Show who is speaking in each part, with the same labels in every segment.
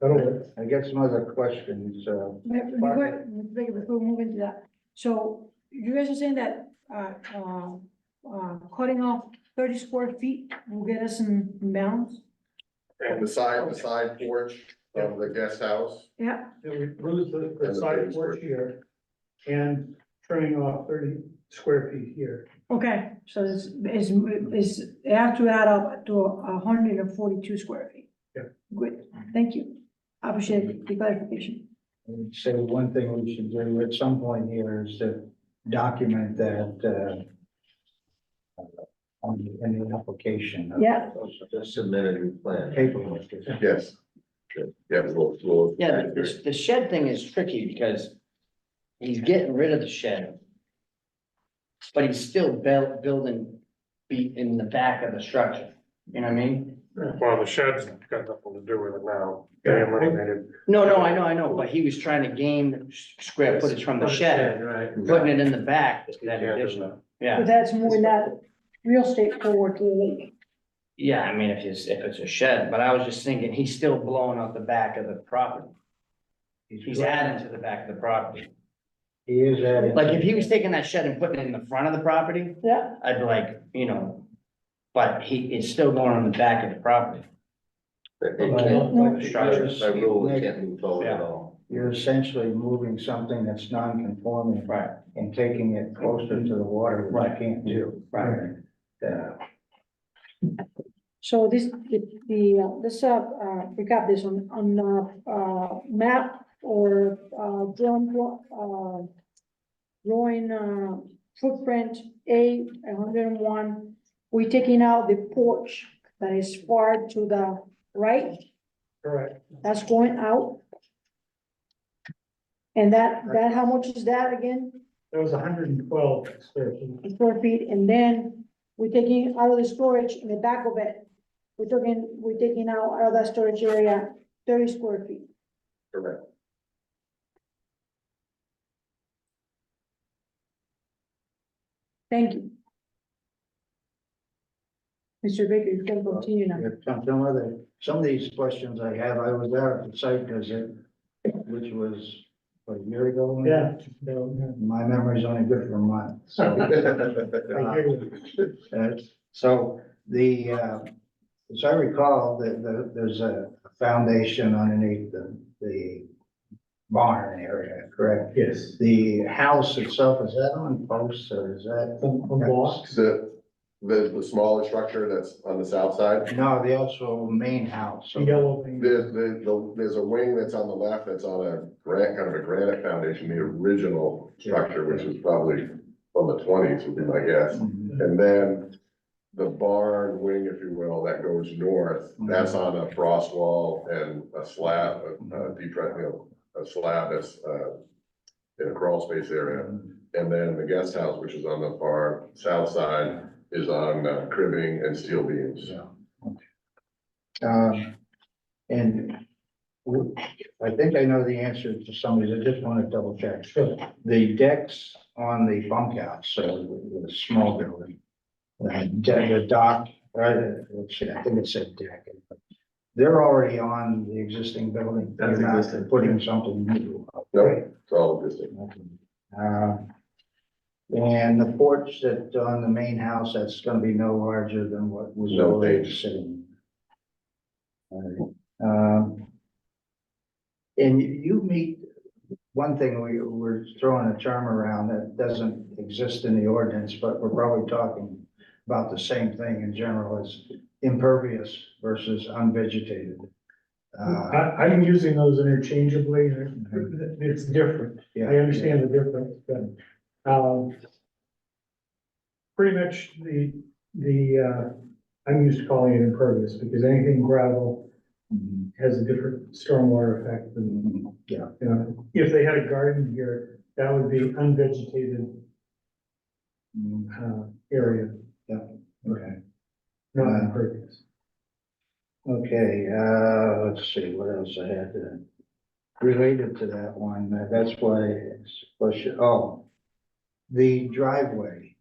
Speaker 1: That'll work. I got some other questions, uh,
Speaker 2: Wait, Before, wait, before we move into that, so you guys are saying that, uh, uh, uh, cutting off thirty square feet will get us in bounds?
Speaker 3: And the side, the side porch of the guest house,
Speaker 2: Yeah,
Speaker 4: that we lose the,
Speaker 3: And
Speaker 4: the
Speaker 3: the
Speaker 4: side
Speaker 3: base
Speaker 4: porch here and trimming off thirty square feet here.
Speaker 2: okay, so it's, it's, it's, it has to add up to a hundred and forty-two square feet.
Speaker 4: Yeah.
Speaker 2: Good, thank you, I appreciate the clarification.
Speaker 1: I would say one thing we should do at some point here is to document that, uh, on the, in the application. of
Speaker 2: Yeah.
Speaker 1: The submitted plan. Paperwork.
Speaker 3: yes. Yeah, we'll, we'll.
Speaker 5: Yeah, the- the, the shed thing is tricky because he's getting rid of the shed. But he's still built, building be in the back of the structure, you know what I mean?
Speaker 6: Well, the shed's got nothing to do with it now. They eliminated,
Speaker 5: No, no, I know, I know, but he was trying to gain s- square footage from the shed,
Speaker 4: Right.
Speaker 5: putting it in the back, that
Speaker 6: Yeah, there's
Speaker 5: addition,
Speaker 6: no-
Speaker 2: But
Speaker 5: yeah.
Speaker 2: that's more that real estate forward to the lake.
Speaker 5: Yeah, I mean, if it's, if it's a shed, but I was just thinking, he's still blowing out the back of the property. He's adding to the back of the property.
Speaker 1: He is adding.
Speaker 5: Like, if he was taking that shed and putting it in the front of the property,
Speaker 2: Yeah.
Speaker 5: I'd be like, you know, but he is still going on the back of the property.
Speaker 1: Like
Speaker 5: Structures,
Speaker 1: structures,
Speaker 3: move forward
Speaker 5: at
Speaker 3: all.
Speaker 1: You're essentially moving something that's non-conforming
Speaker 5: Right,
Speaker 1: and taking it closer to the water, which you
Speaker 5: Right.
Speaker 1: can't do.
Speaker 5: right.
Speaker 1: Uh,
Speaker 2: So this, the, the, uh, let's, uh, uh, pick up this on, on, uh, uh, map or, uh, drawn, uh, drawing, uh, footprint A, hundred and one. We're taking out the porch that is far to the right,
Speaker 4: Correct.
Speaker 2: that's going out. And that, that, how much is that again?
Speaker 4: That was hundred and twelve square feet.
Speaker 2: square feet, and then we're taking out of the storage in the back of it. We're taking, we're taking out out of that storage area thirty square feet.
Speaker 3: Correct.
Speaker 2: Thank you. Mr. Baker, you can continue now.
Speaker 1: If Some some other, some of these questions I have, I was there at the site visit, which was what, a year ago. maybe?
Speaker 4: Yeah. no,
Speaker 1: My memory's only good for a month, so.
Speaker 4: yeah, I hear you.
Speaker 1: Uh, So the, uh, as I recall, the, the, there's a foundation underneath the, the barn area, correct?
Speaker 4: Yes.
Speaker 1: The house itself, is that on posts or is that?
Speaker 4: From, from Boston.
Speaker 3: The, the, the smaller structure that's on the south side,
Speaker 1: No, the actual main house.
Speaker 4: the yellow thing.
Speaker 3: there's, the, the, there's a wing that's on the left that's on a granite, kind of a granite foundation, the original structure, which is probably from the twenties, would be my guess.
Speaker 1: Mhm.
Speaker 3: And then the barn wing, if you will, that goes north, that's on a frost wall and a slab, a- a deep, you know, a slab that's, uh, in a crawl space area. And then the guest house, which is on the far south side, is on uh, cribbing and steel beams.
Speaker 1: So, okay. Um, and w- I think I know the answer to some of these, I just want to double check. The decks on the bunk out, so the- the small building. uh, de- The dock, right, uh, let's see, I think it said deck. They're already on the existing building. They're
Speaker 3: That's
Speaker 1: not
Speaker 3: existing.
Speaker 1: putting something new up.
Speaker 3: No, it's all existing.
Speaker 1: Uh, And the porch that on the main house, that's gonna be no larger than what was
Speaker 3: No
Speaker 1: already
Speaker 3: page.
Speaker 1: sitting. Alright, um, And you- you meet, one thing, we, we're throwing a term around that doesn't exist in the ordinance, but we're probably talking about the same thing in general as impervious versus unvegetated. Uh,
Speaker 4: I, I'm using those interchangeably, it's different,
Speaker 1: yeah.
Speaker 4: I understand the difference, but, um. Pretty much the, the, uh, I'm used to calling it impervious, because anything gravel
Speaker 1: Mhm,
Speaker 4: has a different stormwater effect than,
Speaker 1: mhm, Yeah.
Speaker 4: you know, if they had a garden here, that would be unvegetated,
Speaker 1: mhm.
Speaker 4: uh, area,
Speaker 1: Okay,
Speaker 4: not impervious.
Speaker 1: okay, uh, let's see, what else I had to, related to that one, uh, that's why, it's question, oh. The driveway.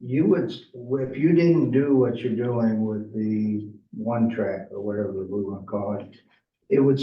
Speaker 1: You would, if you didn't do what you're doing with the one track or whatever we wanna call it, it would